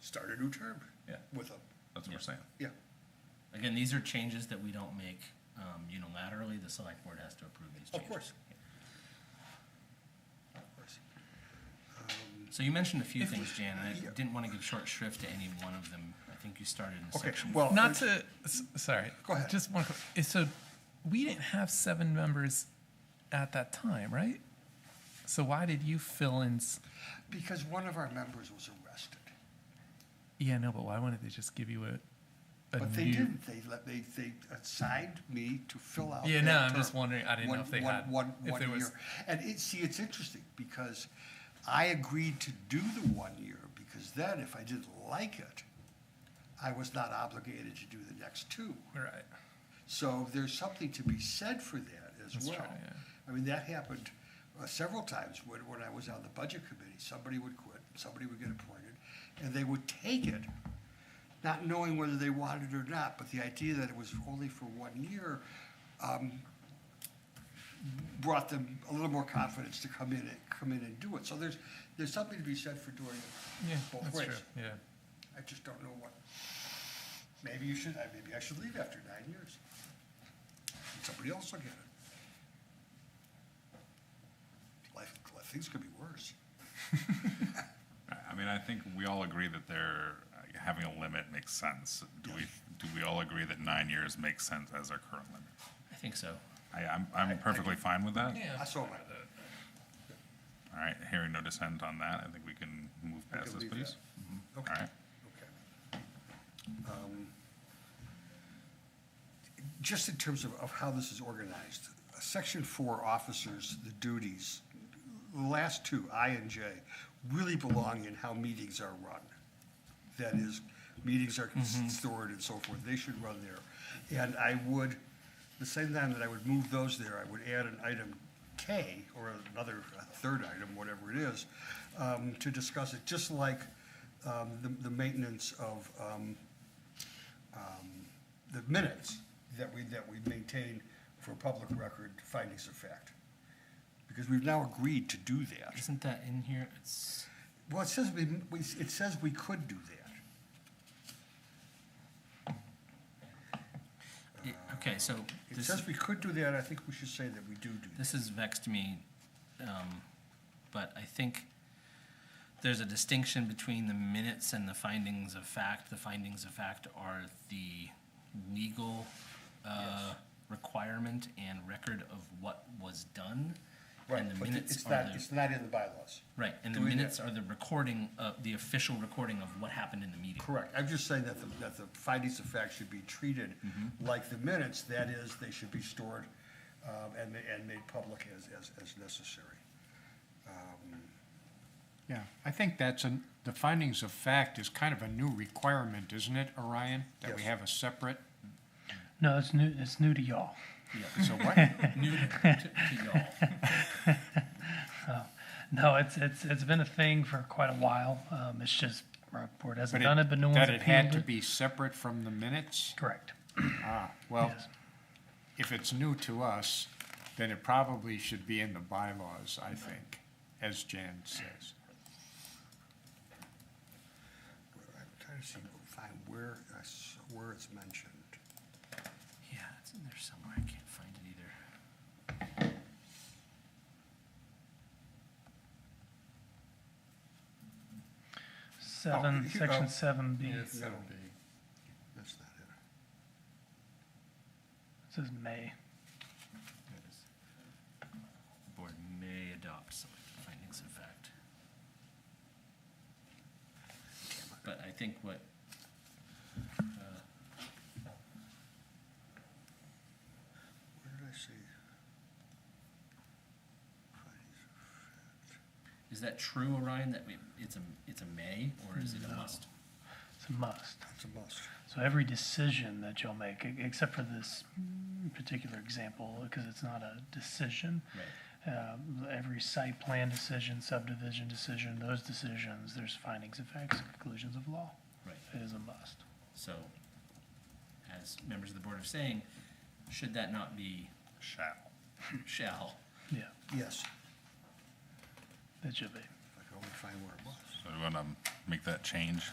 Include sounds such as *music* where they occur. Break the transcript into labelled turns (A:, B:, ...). A: start a new term
B: Yeah,
A: with them.
B: that's what we're saying.
A: Yeah.
C: Again, these are changes that we don't make um, unilaterally. The select board has to approve these
A: Of
C: changes.
A: course. Of course. Um,
C: So you mentioned a few
A: If-
C: things, Jan, and I
A: yeah.
C: didn't want to give short shrift to any one of them. I think you started in
A: Okay,
C: section.
A: well,
D: Not to, s- sorry.
A: Go ahead.
D: Just one, quick- eh, so we didn't have seven members at that time, right? So why did you fill in? s-
A: because one of our members was arrested.
D: Yeah, no, but why wouldn't they just give you a, a
A: But they
D: new-
A: didn't, they let, they, they assigned me to fill out.
D: Yeah,
A: that
D: no, I'm
A: term.
D: just wondering, I didn't know
A: One-
D: if they
A: one-
D: had-
A: one-
D: if
A: one
D: there was-
A: year. And it, see, it's interesting, because I agreed to do the one year, because then if I didn't like it, I was not obligated to do the next two.
D: Right.
A: So there's something to be said for that as
D: That's
A: well.
D: true, yeah.
A: I mean, that happened uh, several times when, when I was on the budget committee. Somebody would quit, somebody would get appointed, and they would take it, not knowing whether they wanted it or not. But the idea that it was only for one year um, brought them a little more confidence to come in and, come in and do it. So there's, there's something to be said for doing it
D: Yeah,
A: both
D: that's
A: ways.
D: true. Yeah.
A: I just don't know what. Maybe you should, I- maybe I should leave after nine years. Somebody else will get it. Life, life, things could be worse.
B: I- I mean, I think we all agree that they're, uh, having a limit makes sense. Do we, do we all agree that nine years makes sense as our current limit?
C: I think so.
B: I, I'm, I'm perfectly fine with that.
D: Yeah.
A: I saw my,
B: All right, hearing no dissent on that, I think we can move
A: We
B: past
A: can
B: this,
A: leave
B: please.
A: that.
B: All right,
A: okay. Um, Just in terms of, of how this is organized, section four, officers, the duties, the last two, I and J, really belong in how meetings are run. that is, meetings are stored and so forth, they should run there. And I would, the same time that I would move those there, I would add an item K, or another, a third item, whatever it is, um, to discuss it, just like, um, the, the maintenance of, um, um, the minutes that we, that we maintain for public record findings of fact. Because we've now agreed to do that.
C: Isn't that in here? It's
A: Well, it says we, we- it says we could do that.
C: it, okay. So
A: It
C: this
A: says we could do that, I think we should say that we do do that.
C: this has vexed me, um, but I think there's a distinction between the minutes and the findings of fact. The findings of fact are the legal uh, requirement and record of what was done.
A: Right,
C: and the
A: but
C: minutes
A: it's
C: are
A: not,
C: the-
A: it's not in the bylaws.
C: Right, and the
A: doing that.
C: minutes are the recording, of the official recording of what happened in the meeting.
A: Correct, I'm just saying that the, that the findings of fact should be treated
C: Mm-hmm.
A: like the minutes, that is, they should be stored, um, and, ma- and made public as, as, as necessary.
E: Yeah, I think that's an, the findings of fact is kind of a new requirement, isn't it, Orion? That we
A: Yes.
E: have a separate,
F: No, it's new. It's new to y'all.
E: so what?
C: New *laughs* to, to
A: *laughs*
C: y'all.
F: No, it's it's it's been a thing for quite a while. Um, it's just Rockport
E: But
F: hasn't done it, but no one's
E: That it had
F: appealed
E: to
F: it.
E: be separate from the minutes?
F: Correct.
E: Ah, well,
F: Yes.
E: if it's new to us, then it probably should be in the bylaws, I think, as Jan says.
A: I'm trying to see, find where, I s- where it's mentioned.
C: Yeah, it's in there somewhere. I can't find it either.
F: Seven,
A: Oh, here-
F: section
A: oh.
F: seven B. It
A: No, That's not it.
F: says may.
C: There it is. The Board may adopt selected findings of fact. But I think what, uh,
A: Where did I see? Findings of
C: is that true, Orion, that we, it's a, it's a may or is it a must?
F: It's a must.
A: fact. It's a must.
F: So every decision that you'll make, e- except for this particular example, because it's not a decision.
C: Right.
F: Um, every site plan decision, subdivision decision, those decisions, there's findings of facts, and conclusions of law.
C: Right.
F: It is a must.
C: So, as members of the board are saying, should that not be
B: shall.
C: shall?
F: Yeah,
A: Yes,
F: it should be.
A: if I can only find where it was.
B: So we want to make that change?